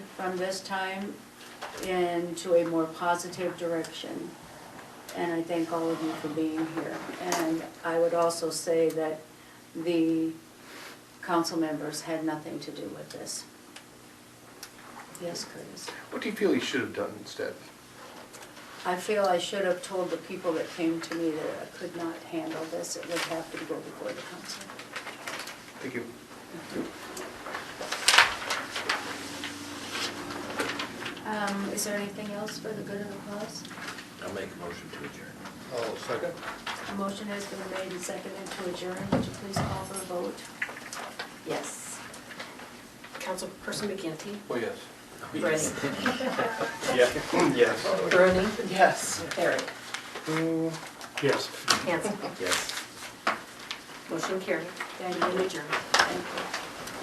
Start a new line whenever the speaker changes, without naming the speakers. from this time into a more positive direction. And I thank all of you for being here. And I would also say that the council members had nothing to do with this. Yes, Curtis?
What do you feel he should have done instead?
I feel I should have told the people that came to me that I could not handle this, it would have to go before the council.
Thank you.
Um, is there anything else for the good of the cause?
I'll make a motion to adjourn.
Oh, second.
A motion has been made and seconded to adjourn, would you please call for a vote?
Yes. Councilperson McGinty?
Oh, yes.
Brennan?
Yeah, yes.
Bruni? Yes. Eric?
Yes.
Hanson?
Yes.
Motion carried.
Thank you.
Adjourned.
Thank you.